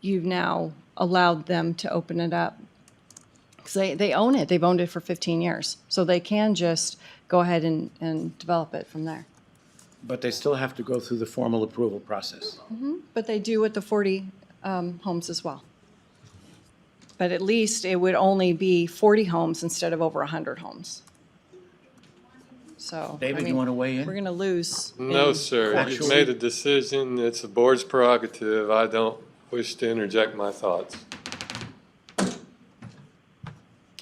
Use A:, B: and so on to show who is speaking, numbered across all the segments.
A: you've now allowed them to open it up. Because they, they own it, they've owned it for 15 years. So they can just go ahead and, and develop it from there.
B: But they still have to go through the formal approval process.
A: But they do with the 40 um, homes as well. But at least it would only be 40 homes instead of over 100 homes. So. I
B: David, you
A: mean,
B: wanna weigh in?
A: We're going to lose.
C: No, sir.
B: Factually?
C: You've made a decision. It's the board's prerogative. I don't wish to interject my thoughts.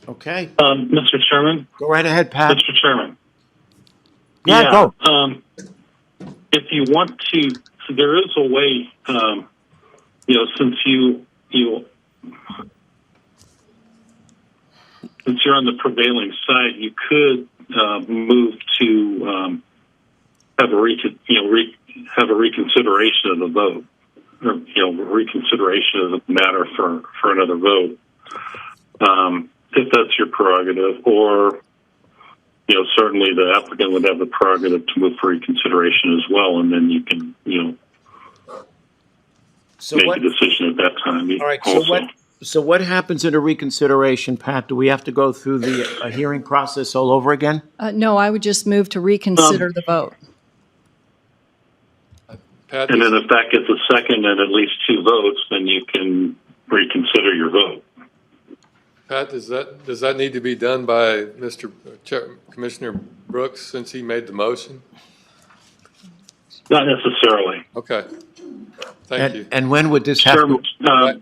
B: Okay,
D: Um, Mr. Chairman,
B: go right ahead, Pat.
D: Mr. Chairman.
B: Yeah, go.
D: Um, if you want to, there is a way. Um, you know, since you you since you're on the prevailing side, you could uh, move to um, have a recon, you know re, have a reconsideration of the vote, or you know reconsideration of the matter for for another vote. Um, if that's your prerogative, or you know, certainly the applicant would have the prerogative to move for reconsideration as well, and then you can, you know,
B: So
D: make
B: what,
D: a decision at that time.
B: all right, so
D: also.
B: what, so what happens in a reconsideration, Pat? Do we have to go through the, a hearing process all over again?
A: Uh, No, I would just move to reconsider the vote.
C: Pat,
D: And then if that gets a second and at least two votes, then you can reconsider your vote.
C: Pat, does that, does that need to be done by Mr. Chair- Commissioner Brooks since he made the motion?
D: Not necessarily.
C: Okay. Thank you.
B: And, and when would this
D: Sure,
B: happen?
D: uh,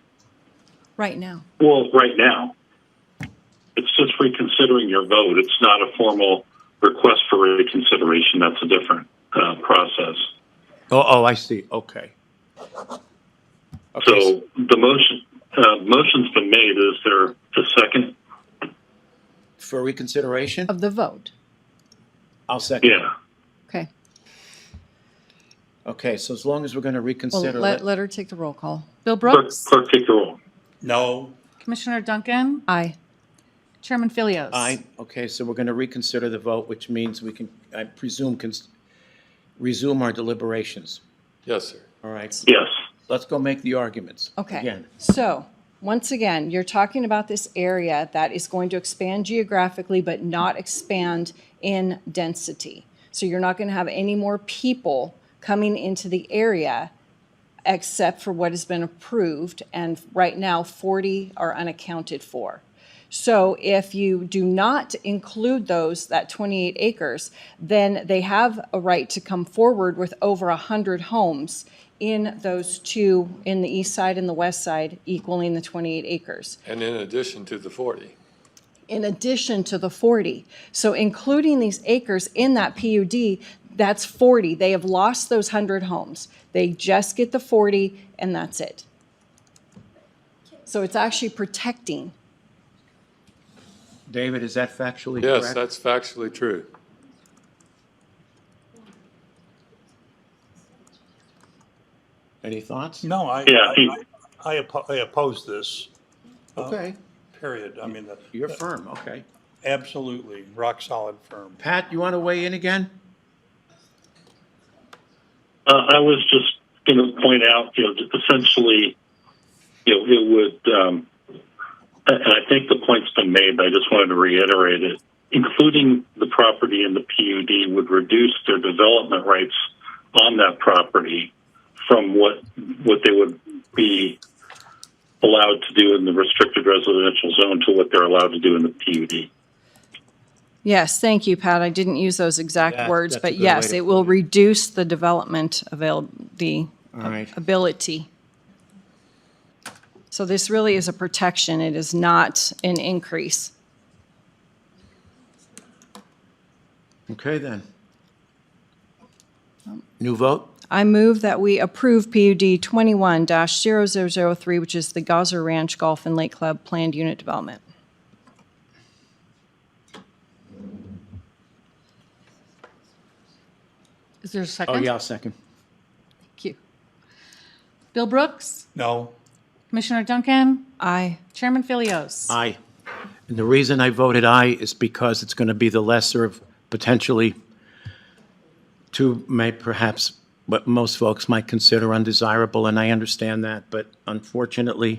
A: Right now.
D: well, right now, it's just reconsidering your vote. It's not a formal request for reconsideration. That's a different uh, process.
B: Oh, oh, I see, okay. Okay,
D: So the motion, uh, motion's been made. Is there a second?
B: For reconsideration?
A: Of the vote.
B: I'll second.
D: Yeah.
A: Okay.
B: Okay, so as long as we're going to
A: Well,
B: reconsider.
A: let, let her take the roll call. Bill
D: Clerk,
A: Brooks?
D: clerk take the roll.
B: No.
E: Commissioner Duncan,
A: Aye.
E: Chairman Philios.
B: I, okay, so we're going to reconsider the vote, which means we can, I presume, can resume our deliberations.
C: Yes, sir.
B: All right,
D: Yes.
B: let's go make the arguments.
A: Okay,
B: Again.
A: so, once again, you're talking about this area that is going to expand geographically but not expand in density. So you're not going to have any more people coming into the area except for what has been approved, and right now 40 are unaccounted for. So if you do not include those, that 28 acres, then they have a right to come forward with over 100 homes in those two, in the east side and the west side, equaling the 28 acres,
C: And in addition to the 40.
A: in addition to the 40. So including these acres in that PUD, that's 40. They have lost those 100 homes. They just get the 40, and that's it. So it's actually protecting
B: David, is that factually correct?
C: Yes, that's factually true.
B: Any thoughts?
F: No, I,
D: Yeah,
F: I-
D: he-
F: I, I oppo- I oppose this,
B: Okay,
F: period. I mean, the-
B: Oh, you're firm, okay.
F: absolutely, rock solid firm.
B: Pat, you want to weigh in again?
D: Uh, I was just going to point out, you know, that essentially, you know, it would, um, and I think the point's been made, but I just wanted to reiterate it. Including the property in the PUD would reduce their development rights on that property from what, what they would be allowed to do in the restricted residential zone to what they're allowed to do in the PUD.
A: Yes, thank you, Pat. I didn't use those
B: That-
A: exact words,
B: that's a
A: but
B: good way
A: yes,
B: to
A: it will reduce the development avail, the
B: All right.
A: ability. So this really is a protection. It is not an increase.
B: Okay, then. New vote?
A: I move that we approve PUD twenty-one 3 which is the Gaza Ranch Golf and Lake Club Planned Unit Development.
E: Is there a second?
B: Oh, yeah, I'll second.
E: Thank you. Bill Brooks,
F: No,
E: Commissioner Duncan,
A: Aye.
E: Chairman Philios.
B: Aye. And the reason I voted aye is because it's going to be the lesser of potentially two, may perhaps what most folks might consider undesirable, and I understand that, but unfortunately,